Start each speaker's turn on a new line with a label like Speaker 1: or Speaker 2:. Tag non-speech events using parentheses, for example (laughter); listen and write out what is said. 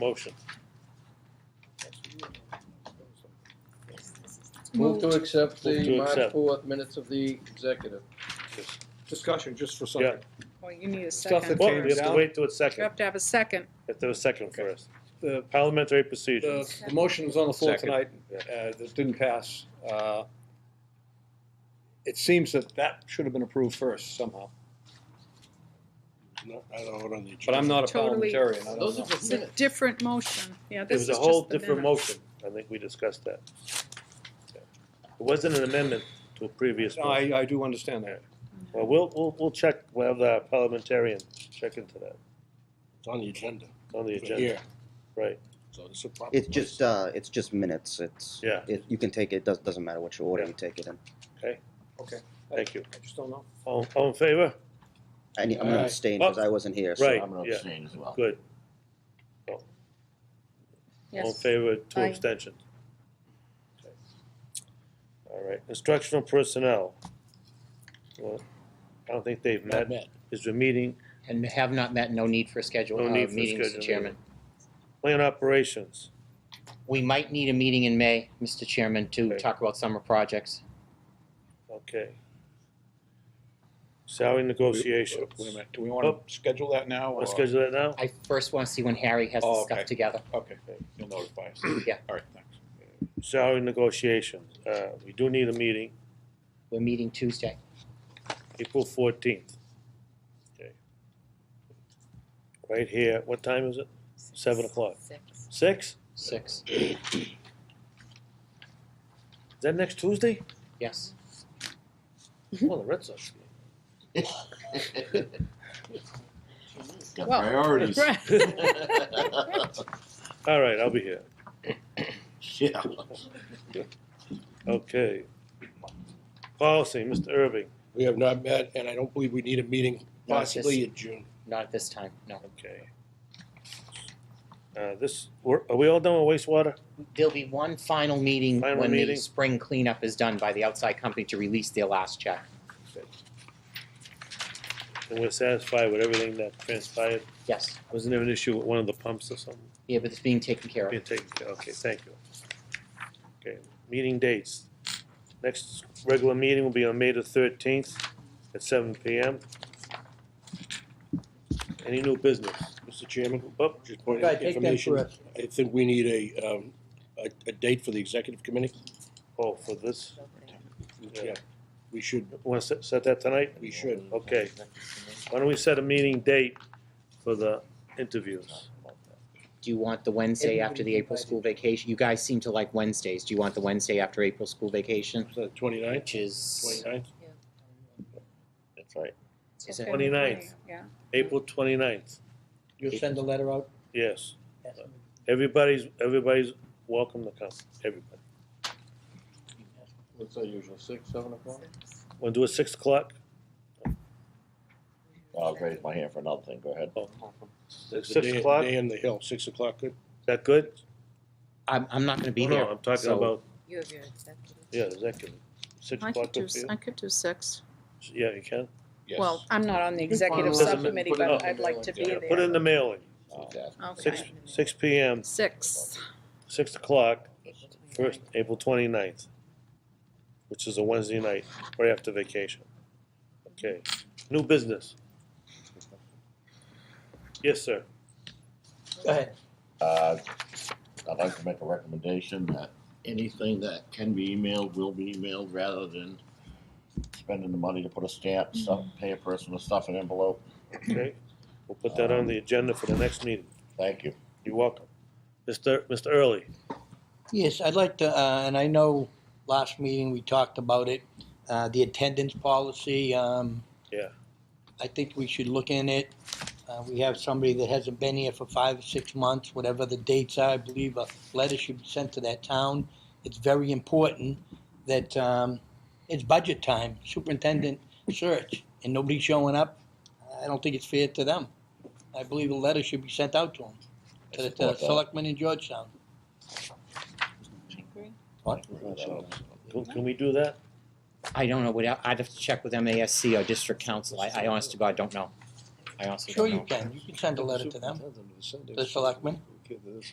Speaker 1: Motion.
Speaker 2: Move to accept
Speaker 1: Move
Speaker 2: the
Speaker 1: to
Speaker 2: March
Speaker 1: accept.
Speaker 2: fourth minutes of the executive.
Speaker 1: Just-
Speaker 3: Discussion, just for
Speaker 1: Yeah.
Speaker 3: second.
Speaker 4: Well, you need a
Speaker 3: Stuff
Speaker 4: second
Speaker 3: that
Speaker 1: Well, you
Speaker 4: first.
Speaker 3: came-
Speaker 1: have to wait till it's
Speaker 4: You
Speaker 1: second,
Speaker 4: have to have a second.
Speaker 1: if there was second
Speaker 3: Okay.
Speaker 1: first.
Speaker 3: The,
Speaker 1: Parliamentary
Speaker 3: the,
Speaker 1: procedure.
Speaker 3: the motion is on the floor
Speaker 1: Second.
Speaker 3: tonight, uh, this didn't pass. Uh, It seems that that should have been approved first somehow,
Speaker 5: No, I don't know what on the.
Speaker 3: but I'm not a
Speaker 4: Totally.
Speaker 3: parliamentarian, I don't
Speaker 2: Those
Speaker 3: know.
Speaker 2: are just
Speaker 4: It's a
Speaker 2: minutes.
Speaker 4: different motion. Yeah,
Speaker 1: It
Speaker 4: this is
Speaker 1: was a
Speaker 4: just
Speaker 1: whole
Speaker 4: the
Speaker 1: different
Speaker 4: minutes.
Speaker 1: motion, I think we discussed that. It wasn't an amendment to a previous
Speaker 3: No,
Speaker 1: motion.
Speaker 3: I, I do understand that.
Speaker 1: Well, we'll, we'll, we'll check, we'll have the parliamentarian check into that
Speaker 5: It's on the agenda.
Speaker 1: on the
Speaker 5: for
Speaker 1: agenda,
Speaker 5: here,
Speaker 1: right?
Speaker 5: So it's a problem.
Speaker 6: It's just, uh, it's just minutes, it's,
Speaker 1: Yeah.
Speaker 6: it, you can take it, does, doesn't matter which order you take it in.
Speaker 3: Okay.
Speaker 1: Thank you.
Speaker 3: I just don't know.
Speaker 1: All, all in favor?
Speaker 6: I need, I'm gonna
Speaker 5: Alright.
Speaker 6: abstain, cause I wasn't here, so.
Speaker 1: Right,
Speaker 7: I'm gonna
Speaker 1: yeah,
Speaker 7: abstain as well.
Speaker 1: good. All in
Speaker 4: Yes.
Speaker 1: favor, two
Speaker 4: Aye.
Speaker 1: abstentions. Okay. All right, instructional personnel. Well, I don't think they've
Speaker 5: Not
Speaker 1: met,
Speaker 5: met.
Speaker 1: is the meeting,
Speaker 8: And have not met, no need for schedule,
Speaker 1: No
Speaker 8: uh,
Speaker 1: need for
Speaker 8: meeting, Mr.
Speaker 1: schedule,
Speaker 8: Chairman.
Speaker 1: plan operations.
Speaker 8: We might need a meeting in May, Mr. Chairman, to
Speaker 1: Okay.
Speaker 8: talk about summer projects.
Speaker 1: Okay. Salary negotiations.
Speaker 3: Wait a minute, do we wanna
Speaker 1: Oh.
Speaker 3: schedule that now? or-
Speaker 1: Let's schedule that now?
Speaker 8: I first want to see when Harry has
Speaker 3: Oh,
Speaker 8: the
Speaker 3: okay.
Speaker 8: stuff together.
Speaker 3: Okay, you'll notify us.
Speaker 8: Yeah.
Speaker 3: All right, thanks.
Speaker 1: Salary negotiations, uh, we do need a meeting,
Speaker 8: We're meeting Tuesday.
Speaker 1: April fourteenth. Okay. Right here, what time is it? Seven o'clock.
Speaker 4: Six.
Speaker 1: Six?
Speaker 8: Six,
Speaker 1: Is that next Tuesday?
Speaker 8: yes.
Speaker 1: Well, the Red Sox. game.
Speaker 7: Got
Speaker 4: Well,
Speaker 1: (laughs)
Speaker 7: priorities.
Speaker 1: All right, I'll be here.
Speaker 7: Yeah.
Speaker 1: Okay. Policy, Mr. Irving.
Speaker 5: We have not met, and I don't believe we need a meeting
Speaker 8: No, it's
Speaker 5: possibly in June.
Speaker 8: Not at this time, no.
Speaker 1: Okay. Uh, this, we're- are we all done with wastewater?
Speaker 8: There'll be one final meeting
Speaker 1: Final
Speaker 8: when the
Speaker 1: meeting.
Speaker 8: spring cleanup is done by the outside company to release their last check.
Speaker 1: And we're satisfied with everything that transpired?
Speaker 8: Yes,
Speaker 1: Wasn't there an issue with one of the pumps or something?
Speaker 8: yeah, but it's being taken care of.
Speaker 1: Being taken care, okay, thank you. Okay, meeting dates. Next regular meeting will be on May the thirteenth at seven P M. Any new business?
Speaker 5: Mr. Chairman,
Speaker 1: Oh,
Speaker 5: just point
Speaker 2: Right,
Speaker 5: out
Speaker 2: take that
Speaker 5: information.
Speaker 2: correct.
Speaker 5: I think we need a, um, a, a date for the executive committee.
Speaker 1: oh, for this, Yeah.
Speaker 5: We should,
Speaker 1: wanna set, set that tonight?
Speaker 5: we should.
Speaker 1: Okay. Why don't we set a meeting date for the interviews?
Speaker 8: Do you want the Wednesday after the April school vacation? You guys seem to like Wednesdays. Do you want the Wednesday after April school vacation?
Speaker 5: Is that twenty-ninth?
Speaker 8: Which is,
Speaker 5: Twenty-ninth?
Speaker 7: That's right.
Speaker 8: is it-
Speaker 4: Okay,
Speaker 1: 29th.
Speaker 4: Yeah.
Speaker 1: April twenty-ninth,
Speaker 2: You'll send a letter out?
Speaker 1: yes. Everybody's, everybody's welcome to come, everybody.
Speaker 3: What's our usual, six, seven o'clock?
Speaker 1: Wanna do it six o'clock?
Speaker 7: I'll raise my hand for another thing, go
Speaker 3: Oh,
Speaker 7: ahead.
Speaker 1: Six
Speaker 5: The day-
Speaker 1: o'clock, is
Speaker 5: Day on the hill, six o'clock, good?
Speaker 1: that good?
Speaker 8: I'm, I'm not gonna be
Speaker 1: Oh, no,
Speaker 8: there.
Speaker 1: I'm talking
Speaker 8: so-
Speaker 1: about,
Speaker 4: You have your executive.
Speaker 1: yeah, executive, six
Speaker 4: I
Speaker 1: o'clock
Speaker 4: could do,
Speaker 1: up here.
Speaker 4: I could do six.
Speaker 1: Yeah, you can.
Speaker 4: Well, I'm not on the executive
Speaker 1: Doesn't-
Speaker 4: subcommittee,
Speaker 1: put it
Speaker 4: but
Speaker 1: on.
Speaker 4: I'd like to be
Speaker 1: Yeah,
Speaker 4: there.
Speaker 1: Put in the mailing, six,
Speaker 4: Okay.
Speaker 1: six P M,
Speaker 4: Six.
Speaker 1: six o'clock, first, April twenty-ninth, which is a Wednesday night, right after vacation. Okay, new business. Yes, sir.
Speaker 2: Go ahead.
Speaker 7: Uh, I'd like to make a recommendation that anything that can be emailed will be emailed rather than spending the money to put a stamp, stuff,
Speaker 2: Mm-hmm.
Speaker 7: pay a person to stuff an envelope.
Speaker 1: Okay, we'll put that on the agenda for the next meeting.
Speaker 7: Thank you.
Speaker 1: You're welcome. Mr. Mr. Early,
Speaker 2: Yes, I'd like to, uh, and I know last meeting we talked about it, uh, the attendance policy, um.
Speaker 1: Yeah.
Speaker 2: I think we should look in it. Uh, we have somebody that hasn't been here for five or six months, whatever the dates are, I believe a letter should be sent to that town. It's very important that, um, it's budget time, superintendent search, and nobody's showing up. I don't think it's fair to them. I believe a letter should be sent out to them, to the- to the
Speaker 7: Support that.
Speaker 2: selectmen in Georgetown.
Speaker 1: can, can we do that?
Speaker 8: I don't know, would, I- I'd have to check with MASC or district council, I, I honest to God don't know. I honestly
Speaker 2: Sure
Speaker 8: don't
Speaker 2: you
Speaker 8: know.
Speaker 2: can, you can send a letter to them, to the selectmen.
Speaker 5: kid, this is-